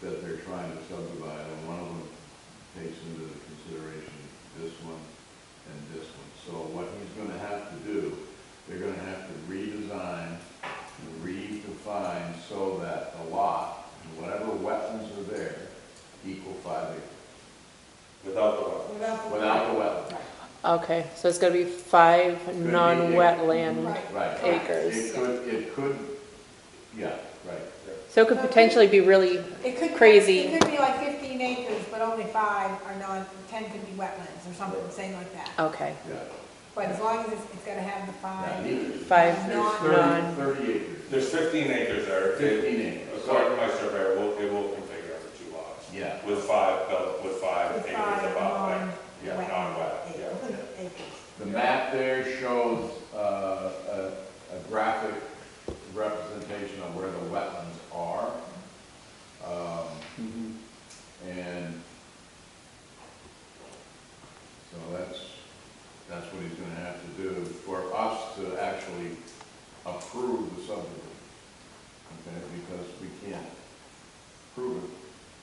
trying to subdivide, and one of them takes into consideration this one and this one. So what he's gonna have to do, they're gonna have to redesign and redefine so that the lot, and whatever wetlands are there, equal five acres, without the lot. Without the. without the wetlands. Okay, so it's gonna be five be non-wetland. Right. Right. Acres. It could, it could, yeah, right. So it could potentially be really, It could. Crazy. It could be like fifteen acres, but only five are non, ten could be wetlands or something, same like that. okay, Yeah. But as long as it's, it's gotta have the Now, five. he- Five There's non- thirty, thirty acres, There's fifteen acres there. It- fifteen acres. According to my survey, it will, it will configure out the two lots. Yeah. With five, belt- with five the acres five of outline. Yeah, non-wetland non-wet, yeah. ac- Acres. The map there shows uh, a a graphic representation of where the wetlands are. Um, And so that's, that's what he's gonna have to do for us to actually approve the subdivision. Okay, because we can't prove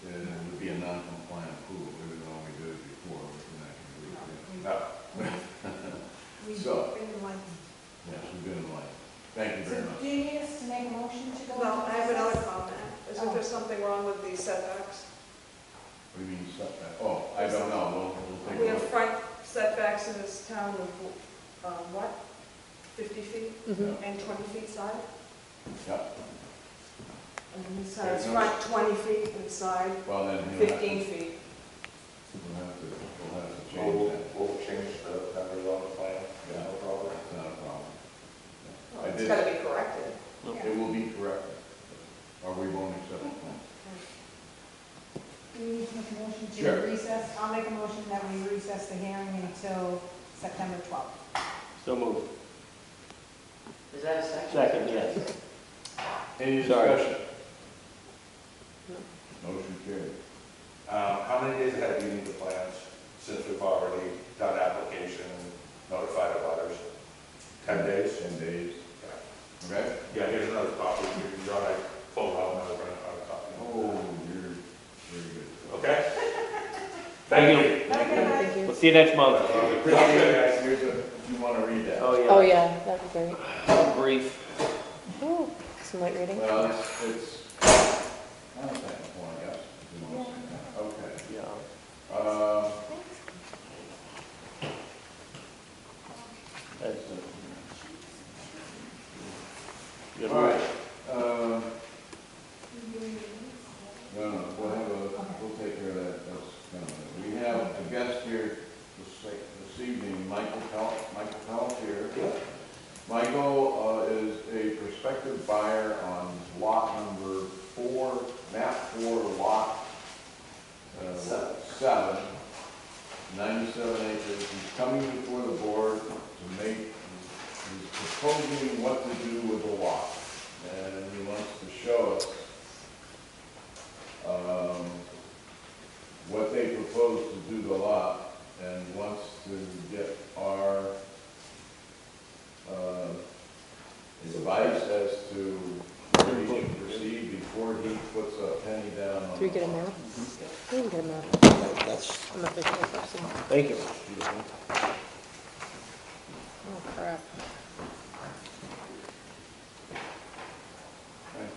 it, and it would be a non-compliant approval, even though we did it before, we're not gonna do it again. We- No, We've So- been like. Yes, we've been enlightened. Thank you So very much. do you need us to make a motion to go? No, I have another into comment. Is that there's something wrong with these setbacks? We mean setback, oh, I don't know, we'll, We we'll take a have look. front setbacks in this town of, um, what, 50 feet Mm-hmm. mhm, and 20 feet side? Yeah, And this side's front 20 feet and side well, then he'll have to, 15 feet. we'll have to, we'll have to change we'll, that, we'll change the numbers on the plan, no problem. it's not a problem. Well, I It's did- gotta be corrected. Yeah. It will be corrected, or we won't accept it. Do you need to make a motion Sure. to recess? I'll make a motion that we recess the hearing until September twelfth. So moved. Is that a second? Second, yes. Any Sorry. discussion? Motion carried. Um, how many days ahead do you need the plans, since we've already done application, notified of others? Ten days? Ten days, Yeah. okay? Yeah, here's another copy, you can draw, I pulled out another, another copy. Oh, you're very good. Okay? Thank Thank you. Okay. We'll see you next month. Okay. Appreciate it, guys, here's a, if you wanna read that. Oh, yeah. oh yeah, that'd be great. Brief. Ooh, some light reading. Well, it's, it's, I don't think it's one, yes, if you want to say that. okay. Yeah. Uh, That's it. Good all right, work. uh, no, no, we'll have a, we'll take care of that, that's, kind of it. we have a guest here this, this evening, Michael Pell, Michael Pelletier. Michael, uh, is a prospective buyer on lot number four, map four, lot, uh, seven, ninety-seven acres. He's coming before the board to make, he's proposing what to do with the lot. And he wants to show us, um, what they propose to do to the lot and wants to get our, uh, advice as to where he should proceed before he puts a penny down on the lot. Do we get a map? We didn't get a map. That's, I'm a visual person. thank you. Oh crap,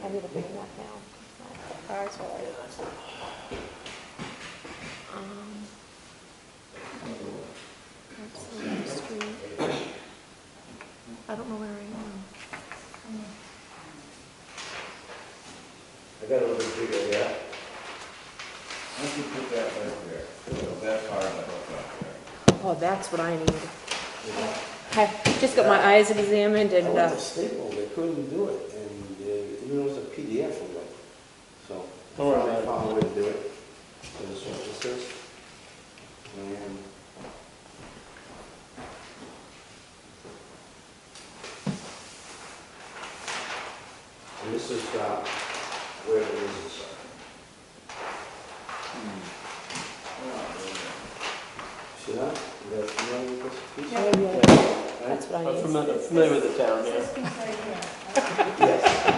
I need a big map now. Alright, so I- Um, that's on the street. I don't know where I am. I got a little bigger, yeah. Why don't you put that right there? So That's hard to hook up there. Oh, that's what I need. I just got my eyes examined I and, went uh, to Staples, they couldn't do it, and uh, even though it was a PDF, I'm like, so. I Don't worry about finally it. Found a way to do it, so this is what this is. And and this is, uh, where it is, see that? You guys familiar with this piece? Yeah, yeah. Right? that's what I I'm need. familiar, familiar with the town, yeah. This piece right here. Yes.